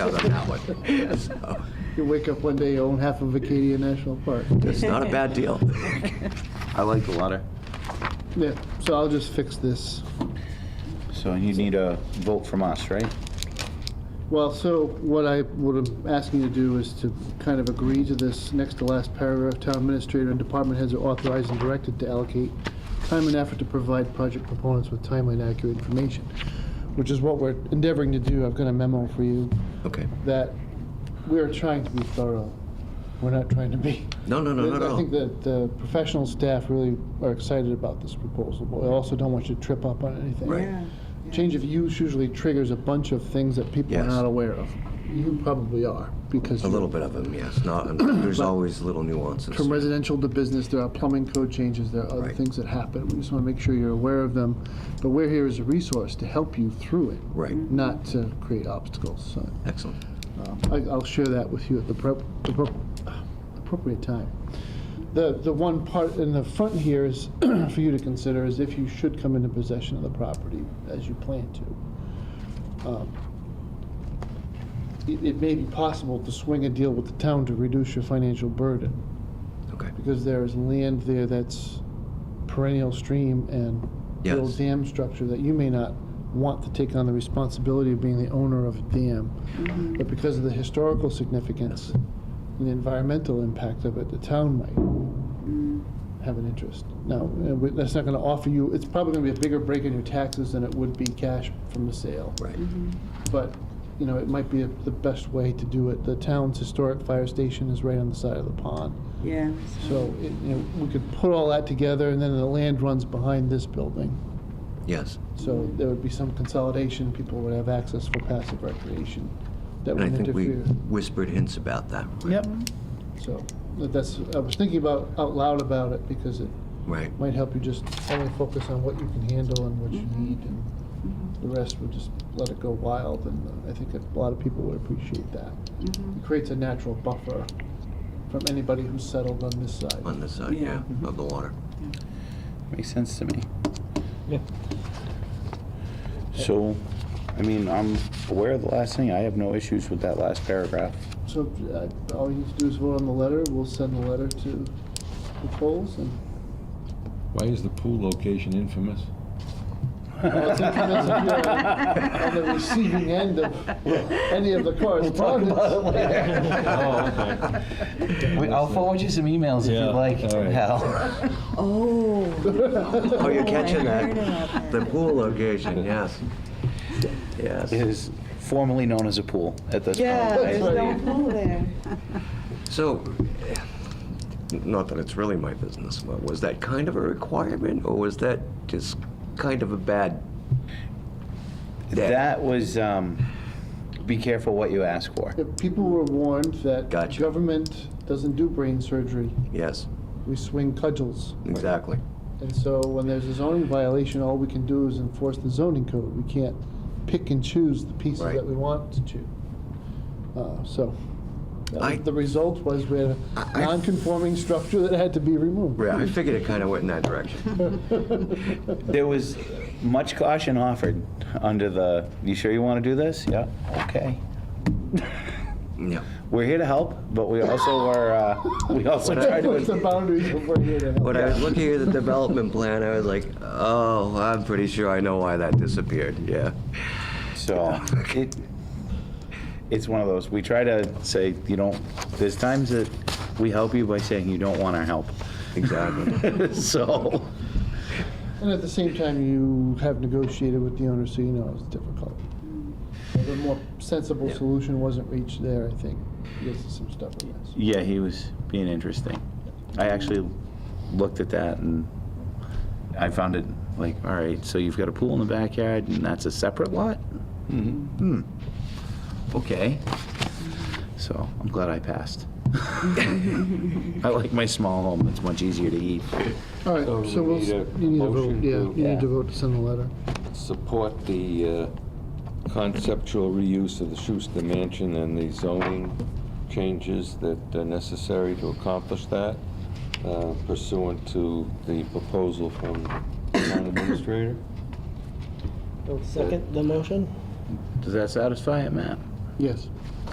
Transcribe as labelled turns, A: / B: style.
A: out on that one. So,
B: You wake up one day, you own half of Acadia National Park.
A: It's not a bad deal.
C: I like the letter.
B: Yeah, so I'll just fix this.
C: So you need a vote from us, right?
B: Well, so what I, what I'm asking you to do is to kind of agree to this next to last paragraph, town administrator and department heads are authorized and directed to allocate time and effort to provide project proponents with timely and accurate information, which is what we're endeavoring to do. I've got a memo for you
A: Okay.
B: that we are trying to be thorough. We're not trying to be.
A: No, no, no, no,
B: I think
A: no.
B: that the professional staff really are excited about this proposal, but I also don't want you to trip up on anything.
A: Right.
B: Change of use usually triggers a bunch of things that people are
A: Yes.
B: not aware of. You probably are, because
A: A little bit of them, yes. Not, there's always little nuances.
B: from residential to business, there are plumbing code changes, there are other
A: Right.
B: things that happen. We just want to make sure you're aware of them, but we're here as a resource to help you through it,
A: Right.
B: not to create obstacles, so.
A: Excellent.
B: I- I'll share that with you at the prop- the prop- appropriate time. The, the one part in the front here is for you to consider is if you should come into possession of the property as you plan to. Um, It, it may be possible to swing a deal with the town to reduce your financial burden,
A: Okay.
B: because there is land there that's perennial stream and the old
A: Yes.
B: dam structure that you may not want to take on the responsibility of being the owner of a dam.
D: Mm-hmm.
B: But because of the historical significance and the environmental impact of it, the town might
D: Mm-hmm.
B: have an interest. Now, uh, we- that's not going to offer you, it's probably going to be a bigger break in your taxes than it would be cash from the sale.
A: Right.
D: Mm-hmm.
B: But, you know, it might be the best way to do it. The town's historic fire station is right on the side of the pond.
D: Yeah.
B: So, it- you know, we could put all that together, and then the land runs behind this building.
A: Yes.
B: So there would be some consolidation, people would have access for passive recreation that
A: And I
B: wouldn't
A: think we
B: interfere.
A: whispered hints about that.
B: Yep. So, but that's, I was thinking about, out loud about it, because it
A: Right.
B: might help you just only focus on what you can handle and what you need, and the rest would just let it go wild, and uh, I think a lot of people would appreciate that. It creates a natural buffer from anybody who's settled on this side.
A: On this side, yeah,
D: Yeah.
A: of the water.
C: Makes sense to me.
B: Yeah.
C: So, I mean, I'm aware of the last thing. I have no issues with that last paragraph.
B: So uh, all you need to do is vote on the letter. We'll send the letter to the polls and.
E: Why is the pool location infamous?
B: Well, it's infamous if you're On the receiving end of any of the correspondence.
F: I'll forward you some emails if
E: Yeah,
F: you'd like,
E: all right.
F: Hal.
D: Oh.
A: Oh, you're catching
D: I heard
A: that.
D: about
A: The
D: that.
A: pool location, yes. Yes.
C: It is formerly known as a pool at this point.
D: Yeah,
A: Oh,
C: right?
D: there's no pool there.
A: So, eh, not that it's really my business, but was that kind of a requirement, or was that just kind of a bad? day?
C: That was, um, be careful what you ask for.
B: If People were warned that
A: Gotcha.
B: government doesn't do brain surgery.
A: Yes,
B: We swing cudgels.
A: exactly.
B: And so when there's a zoning violation, all we can do is enforce the zoning code. We can't pick and choose the pieces
A: Right.
B: that we want to choose. Uh, So that
A: I-
B: was- the result was we had a
A: I- I-
B: non-conforming structure that had to be removed.
A: Right, I figured it kind of went in that direction.
C: There was much caution offered under the, you sure you want to do this? Yeah, okay.
A: Yeah.
C: We're here to help, but we also are, uh, we also try
B: Push the
C: to,
B: boundaries of where you're
A: When I was looking at the development plan, I was like, oh, I'm pretty sure I know why that disappeared, yeah.
C: so it, it's one of those, we try to say, you don't, there's times that we help you by saying you don't want our help.
A: Exactly.
C: So,
B: And at the same time, you have negotiated with the owner, so you know it's difficult. The more sensible
A: Yeah.
B: solution wasn't reached there, I think. Yes, there's some stuff, yes.
C: yeah, he was being interesting. I actually looked at that and I found it like, all right, so you've got a pool in the backyard and that's a separate lot? Hmm. Okay. So I'm glad I passed. I like my small home. It's much easier to eat.
B: All right,
E: So
B: so
E: we
B: we'll,
E: need
B: s-
E: a
B: you need a vote,
E: motion
B: yeah,
E: to-
B: you need
C: Yeah.
B: to vote to send the letter.
E: Support the uh, conceptual reuse of the Schuster Mansion and the zoning changes that are necessary to accomplish that uh, pursuant to the proposal from the town administrator.
G: I'll second the motion.
C: Does that satisfy it, Matt?
B: Yes.